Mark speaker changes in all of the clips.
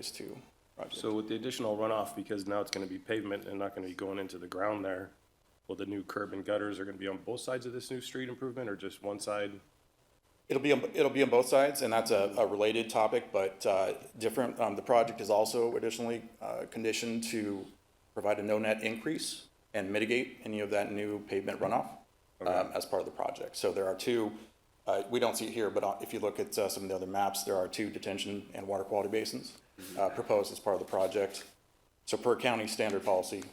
Speaker 1: is two projects.
Speaker 2: So with the additional runoff, because now it's gonna be pavement and not gonna be going into the ground there, well, the new curb and gutters are gonna be on both sides of this new street improvement or just one side?
Speaker 1: It'll be, on- it'll be on both sides, and that's a, a related topic, but, uh, different, um, the project is also additionally, uh, conditioned to provide a no net increase and mitigate any of that new pavement runoff, um, as part of the project. So there are two, uh, we don't see it here, but uh, if you look at, uh, some of the other maps, there are two detention and water quality basins, uh, proposed as part of the project. So per county standard policy,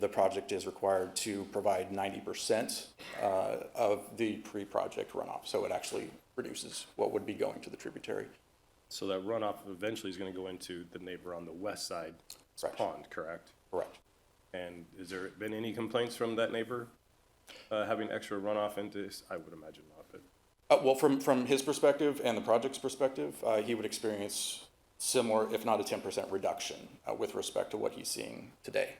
Speaker 1: the project is required to provide ninety percent uh, of the pre-project runoff. So it actually reduces what would be going to the tributary.
Speaker 2: So that runoff eventually is gonna go into the neighbor on the west side
Speaker 1: Correct.
Speaker 2: pond, correct?
Speaker 1: Correct.
Speaker 2: And has there been any complaints from that neighbor, uh, having extra runoff into, his- I would imagine not, but,
Speaker 1: Uh, Well, from, from his perspective and the project's perspective, uh, he would experience similar, if not a ten percent reduction uh, with respect to what he's seeing today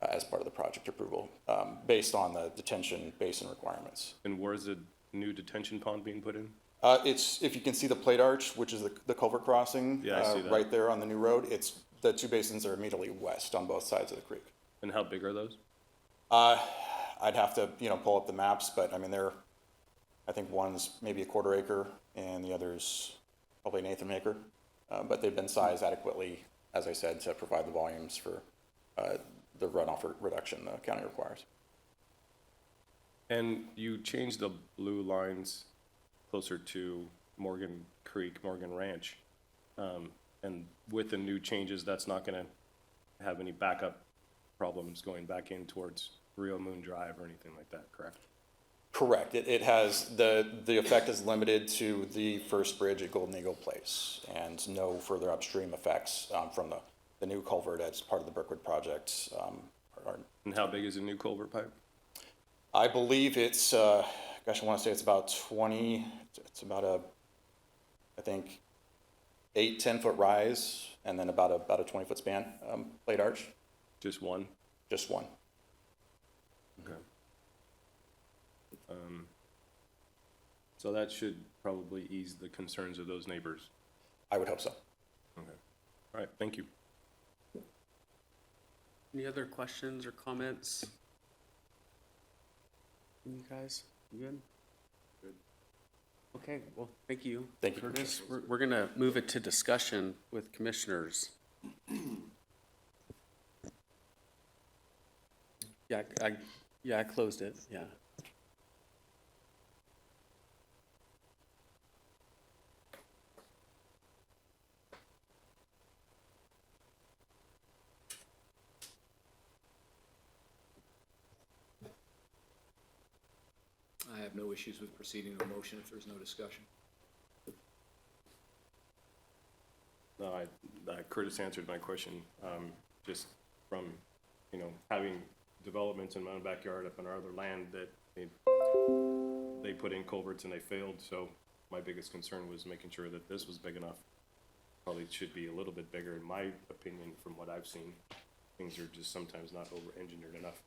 Speaker 1: uh, as part of the project approval, um, based on the detention basin requirements.
Speaker 2: and where's the new detention pond being put in?
Speaker 1: Uh, it's, if you can see the plate arch, which is the, the culvert crossing.
Speaker 2: Yeah, I
Speaker 1: uh,
Speaker 2: see that.
Speaker 1: Right there on the new road, it's, the two basins are immediately west on both sides of the creek.
Speaker 2: And how big are those?
Speaker 1: I'd have to, you know, pull up the maps, but I mean, they're, I think one's maybe a quarter acre and the other's probably an eighth of an acre. Uh, but they've been sized adequately, as I said, to provide the volumes for, uh, the runoff re- reduction the county requires.
Speaker 2: And you changed the blue lines closer to Morgan Creek, Morgan Ranch. Um, and with the new changes, that's not gonna have any backup problems going back in towards Rio Moon Drive or anything like that, correct?
Speaker 1: Correct. It, it has, the, the effect is limited to the first bridge at Golden Eagle Place and no further upstream effects, um, from the, the new culvert as part of the Brookwood project, um, are,
Speaker 2: And how big is the new culvert pipe?
Speaker 1: I believe it's, uh, gosh, I want to say it's about 20, it's about a, I think, eight, 10 foot rise and then about a, about a 20 foot span, um, plate arch,
Speaker 2: Just one?
Speaker 1: just one.
Speaker 2: Okay. Um, So that should probably ease the concerns of those neighbors.
Speaker 1: I would hope so.
Speaker 2: Okay. All right, thank you.
Speaker 3: Any other questions or comments? You guys, you good? Okay, well, thank you.
Speaker 1: Thank you,
Speaker 3: Curtis, we're, we're gonna move it to discussion with commissioners. Yeah, I, yeah, I closed it, yeah.
Speaker 4: I have no issues with proceeding to a motion if there's no discussion.
Speaker 2: No, I, uh, Curtis answered my question, um, just from, you know, having developments in my own backyard up in our other land that they, they put in culverts and they failed, so my biggest concern was making sure that this was big enough. Probably should be a little bit bigger, in my opinion, from what I've seen. Things are just sometimes not over-engineered enough,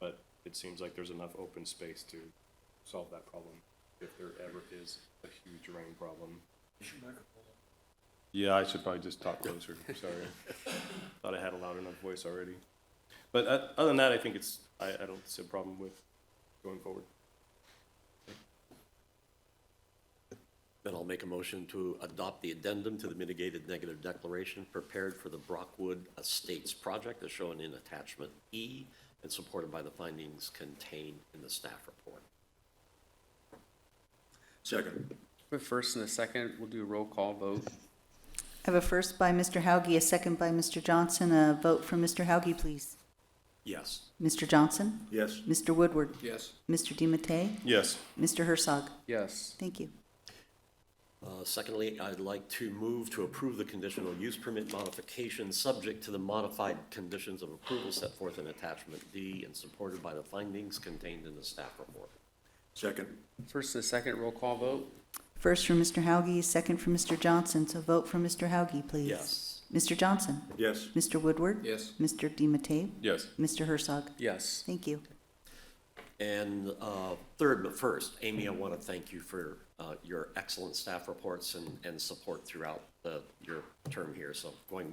Speaker 2: but it seems like there's enough open space to solve that problem, if there ever is a huge rain problem. Yeah, I should probably just talk closer, sorry. Thought I had a loud enough voice already. But uh, other than that, I think it's, I, I don't see a problem with going forward.
Speaker 5: Then I'll make a motion to adopt the addendum to the mitigated negative declaration prepared for the Brockwood Estates project as shown in attachment E and supported by the findings contained in the staff report. Second.
Speaker 3: The first and a second, we'll do a roll call vote.
Speaker 6: I have a first by Mr. Hauge, a second by Mr. Johnson. A vote for Mr. Hauge, please.
Speaker 5: Yes.
Speaker 6: Mr. Johnson?
Speaker 5: Yes.
Speaker 6: Mr. Woodward?
Speaker 4: Yes.
Speaker 6: Mr. DiMattei?
Speaker 2: Yes.
Speaker 6: Mr. Herzog?
Speaker 3: Yes,
Speaker 6: Thank you.
Speaker 5: Uh, Secondly, I'd like to move to approve the conditional use permit modification subject to the modified conditions of approval set forth in attachment D and supported by the findings contained in the staff report. Second.
Speaker 3: first and a second, roll call vote.
Speaker 6: First for Mr. Hauge, a second for Mr. Johnson. So vote for Mr. Hauge, please.
Speaker 5: Yes.
Speaker 6: Mr. Johnson?
Speaker 5: Yes.
Speaker 6: Mr. Woodward?
Speaker 4: Yes.
Speaker 6: Mr. DiMattei?
Speaker 2: Yes.
Speaker 6: Mr. Herzog?
Speaker 3: Yes,
Speaker 6: Thank you.
Speaker 5: And uh, third, but first, Amy, I want to thank you for uh, uh, your excellent staff reports and, and support throughout the, your term here. So going